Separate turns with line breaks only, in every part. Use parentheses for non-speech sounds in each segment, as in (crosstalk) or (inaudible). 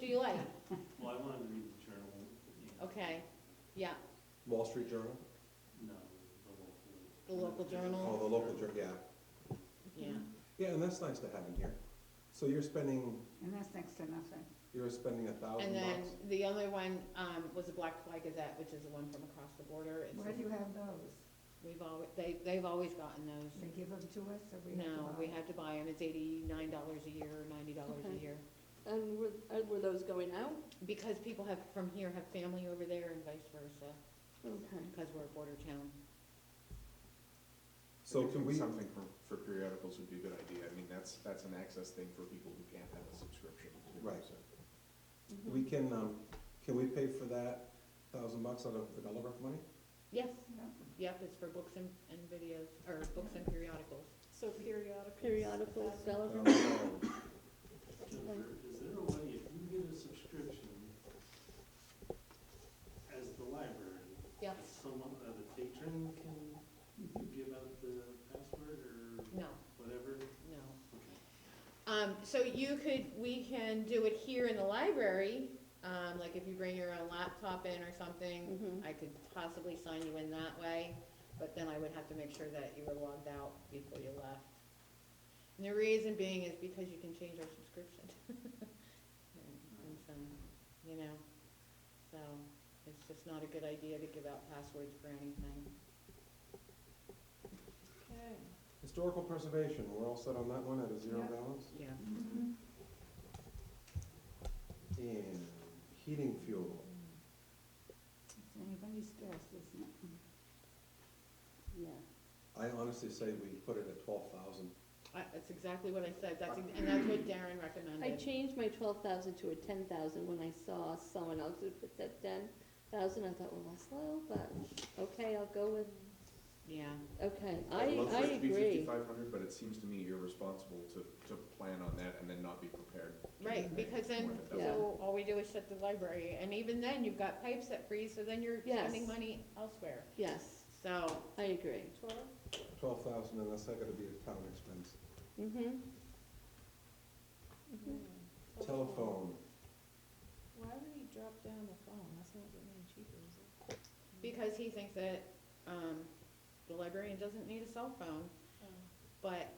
yeah,
Well, I wanted to read the journal, you know,
okay, yeah,
Wall Street Journal,
no, the local.
The local
oh,
journal?
the local journal, yeah.
yeah.
Yeah, and that's nice to have in here. So you're spending,
and that's next to nothing.
you're spending a thousand
And then
bucks.
the other one, um, was the Black Flag Gazette, which is the one from across the border. It's-
Where do you have those?
We've always, they, they've always gotten those.
They give them to us or we have to
No,
buy?
we have to buy them, it's eighty-nine dollars a year, ninety dollars a
Okay.
year.
And were, uh, were those going out?
Because people have, from here, have family over there and vice versa,
Okay.
because we're a border town.
So
I
can we,
think Something for, for periodicals would be a good idea. I mean, that's, that's an access thing for people who can't have a subscription. you know,
Right.
so.
Mm-hmm.
we can, um, can we pay for that thousand bucks out of the Gulliver money?
Yes,
No.
yep, it's for books and, and videos, or books and periodicals.
So periodicals.
Periodicals,
That's-
Bella.
Um,
Jennifer, is there a way, if you get a subscription as the library,
Yes.
someone, uh, the patron can give out the password or
No,
whatever?
no.
Okay.
Um, so you could, we can do it here in the library, um, like if you bring your own laptop in or something,
Mhm.
I could possibly sign you in that way, but then I would have to make sure that you were logged out before you left. And the reason being is because you can change our subscription. (laughs) And- and so, You know, so it's just not a good idea to give out passwords for anything.
Okay.
Historical preservation, we're all set on that one at a zero
Yeah.
balance?
Yeah.
Mm-hmm.
And heating fuel,
It's anybody's guess, isn't it?
Yeah.
I honestly say we put it at twelve thousand.
I- That's exactly what I said, that's, ex- and that's what Darren recommended.
I changed my twelve thousand to a ten thousand when I saw someone else who put that ten thousand. I thought, well, that's low, but okay, I'll go with,
Yeah.
okay,
I'd
I,
love for
I
it to be
agree.
5,500, but it seems to me irresponsible to, to plan on that and then not be prepared.
Right, because then,
More than
so all we do is shut the library, and even then, you've got pipes that freeze, so then you're spending
Yes.
money elsewhere.
Yes,
So,
I agree.
Twelve?
Twelve thousand, and that's not gonna be a town expense.
Mm-hmm.
Mm-hmm.
Mm-hmm. Twelve.
Telephone,
Why would he drop down the phone? That's not getting any cheaper, is it?
because he thinks that, um, the librarian doesn't need a cell phone,
Um,
but,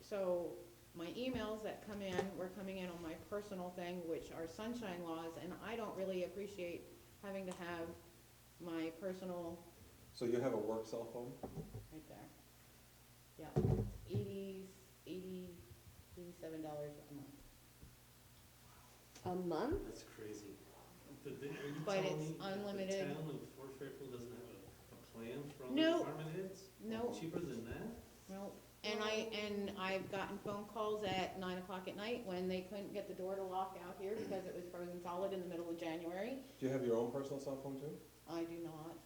so, my emails that come in, were coming in on my personal thing, which are sunshine laws, and I don't really appreciate having to have my personal
so you have a work cell phone?
Right there. Yeah, eighty, eighty, eighty-seven dollars a month.
A month?
That's crazy. Did they- Are you
But
telling
it's
me that
unlimited.
The town of Fort Fairfield doesn't have a, a plan for all the
No.
department heads?
No,
Cheaper than that?
no, and I, and I've gotten phone calls at nine o'clock at night when they couldn't get the door to lock out here because it was frozen solid in the middle of January.
Do you have your own personal cell phone too?
I do not.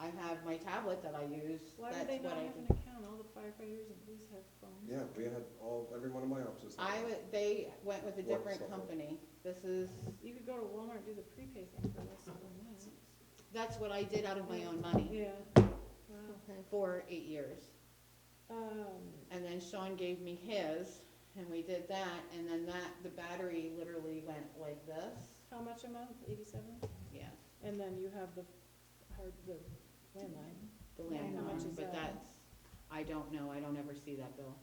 I have my tablet that I use,
Why
that's
would they
what
not
I
have
do.
an account? All the firefighters and police have phones.
Yeah, we had all, every one of my offices.
I, would- they went with a
Work
different
software.
company. This is,
You could go to Walmart and do the prepay thing for less than that.
that's what I did out of my own money
Yeah. Wow.
Okay.
for eight years.
Um,
And then Sean gave me his, and we did that, and then that, the battery literally went like this,
how much a month? Eighty-seven?
yeah,
And then you have the hard, the landline,
the
Yeah, how much
landline,
is
but
that?
that's, I don't know, I don't ever see that bill.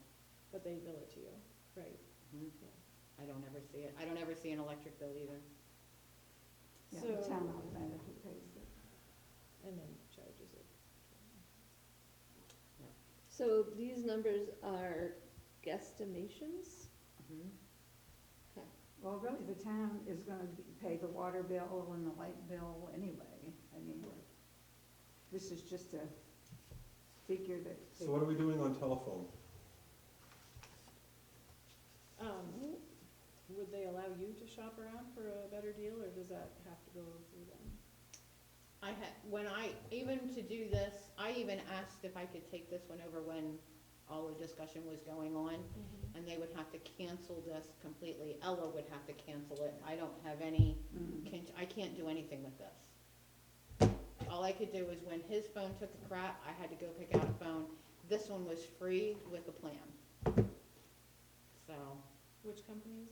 but they bill it to you, right?
Mhm. I don't ever see it, I don't ever see an electric bill either.
Yeah,
So,
the town outlender who pays it.
and then charges it.
So these numbers are guesstimations?
Mhm.
Well, really, the town is gonna be- pay the water bill and the light bill anyway. I mean, this is just a figure that.
So what are we doing on telephone?
Um, would they allow you to shop around for a better deal, or does that have to go through them?
I had, when I, even to do this, I even asked if I could take this one over when all the discussion was going on,
Mm-hmm.
and they would have to cancel this completely, Ella would have to cancel it, I don't have any
Mm.
can, I can't do anything with this. All I could do was when his phone took a crap, I had to go pick out a phone. This one was free with a plan. So,
Which company is